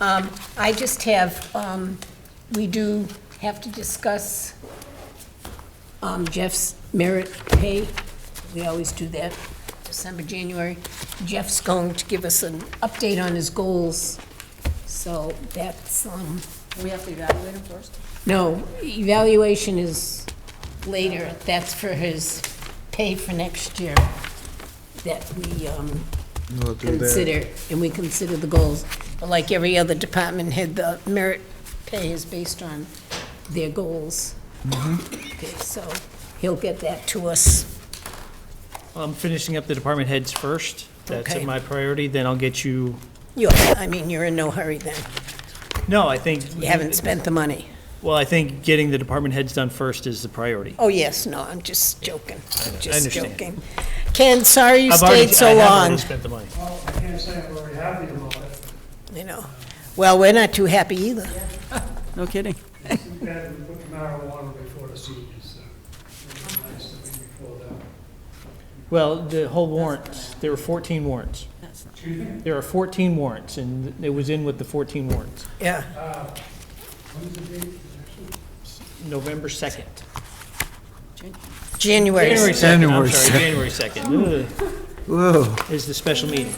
Um, I just have, um, we do have to discuss um, Jeff's merit pay. We always do that, December, January. Jeff's going to give us an update on his goals, so that's, um, We have to evaluate them first? no, evaluation is later. That's for his pay for next year that we, um, We'll do that. consider, and we consider the goals. But like every other department head, the merit pay is based on their goals. Mm-hmm. Okay, so he'll get that to us. I'm finishing up the department heads first. That's Okay. my priority, then I'll get you, you I mean, you're in no hurry then. no, I think. You haven't spent the money. Well, I think getting the department heads done first is the priority. Oh, yes, no, I'm just joking. I'm just understand. joking. Ken, sorry you I've already- stayed so I have already long, spent the money. Well, I can't say I'm very happy about it. you know. Well, we're not too happy either. No kidding. We had to put marijuana before the seniors, so it would be nice to be before that. Well, the whole warrants, there were 14 warrants. Excuse me? There are 14 warrants, and it was in with the 14 warrants. Yeah. When's the date? Actually, November 2nd. January, January 2nd, I'm January sorry, January 2nd. Whoa, Ugh, Is the special meeting.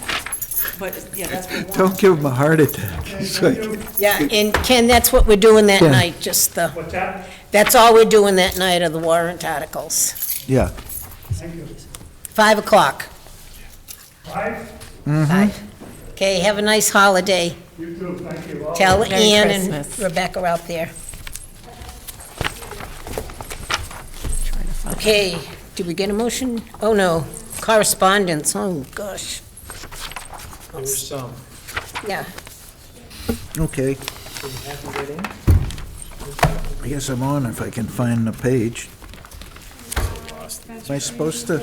But, yeah, that's for one. don't give him a heart attack. It's thank like- you. yeah, and Ken, that's what we're doing that Yeah. night, just the, What's that? that's all we're doing that night are the warrant articles. Yeah, Thank you. Five o'clock. Five, Five. Okay, have a nice holiday. you too, thank you all. Tell Oh, Merry Ann and Christmas. Rebecca out there. Okay, did we get a motion? Oh, no, correspondence, oh, gosh, There's some. yeah. okay. I guess I'm on if I can find the page. Am I supposed to?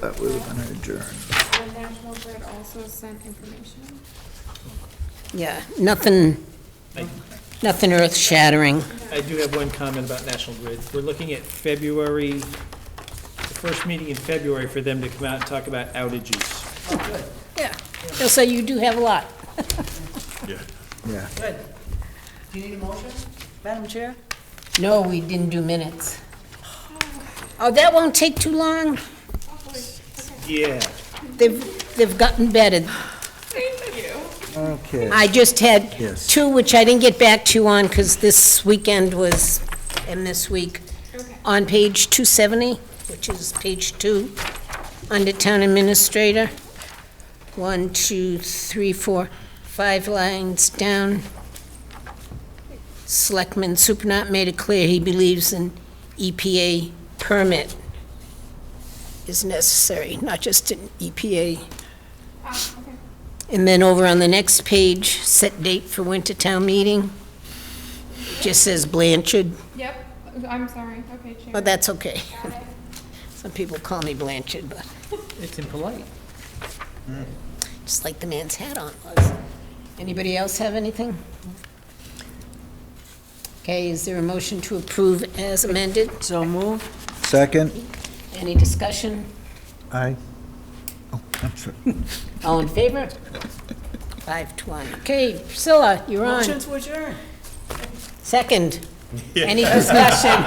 That would have been adjourned. The National Grid also sent information. Yeah, nothing, nothing earth-shattering. I do have one comment about National Grid. We're looking at February, the first meeting in February for them to come out and talk about outages. Yeah, so you do have a lot. Yeah. Do you need a motion? Madam Chair? No, we didn't do minutes. Oh, that won't take too long. Yeah. They've, they've gotten better. Okay. I just had Yes. two, which I didn't get back to you on, because this weekend was, and this week, on page 270, which is page two, under Town Administrator, one, two, three, four, five lines down. Selectman Supranat made it clear he believes an EPA permit is necessary, not just an E EPA Ah, and then over on the next page, set date for winter town meeting. Just says Blanchard, Yep, I'm sorry, okay, Chair. but that's okay. Some people call me Blanchard, but It's impolite. just like the man's hat on was. Anybody else have anything? Okay, is there a motion to approve as amended? So move. Second? Any discussion? Aye. Oh, I'm sorry. All in favor? Five to one. Okay, Priscilla, you're on. Motion to adjourn. Second. Any discussion?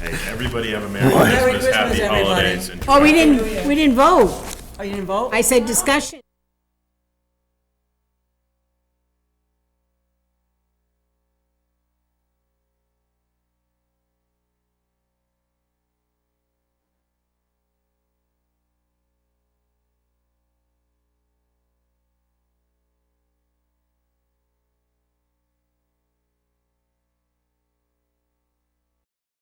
Hey, everybody have a Merry Merry Christmas, Christmas, Happy everybody. Holidays, and Oh, we didn't, we didn't vote. Oh, you didn't vote? I said discussion.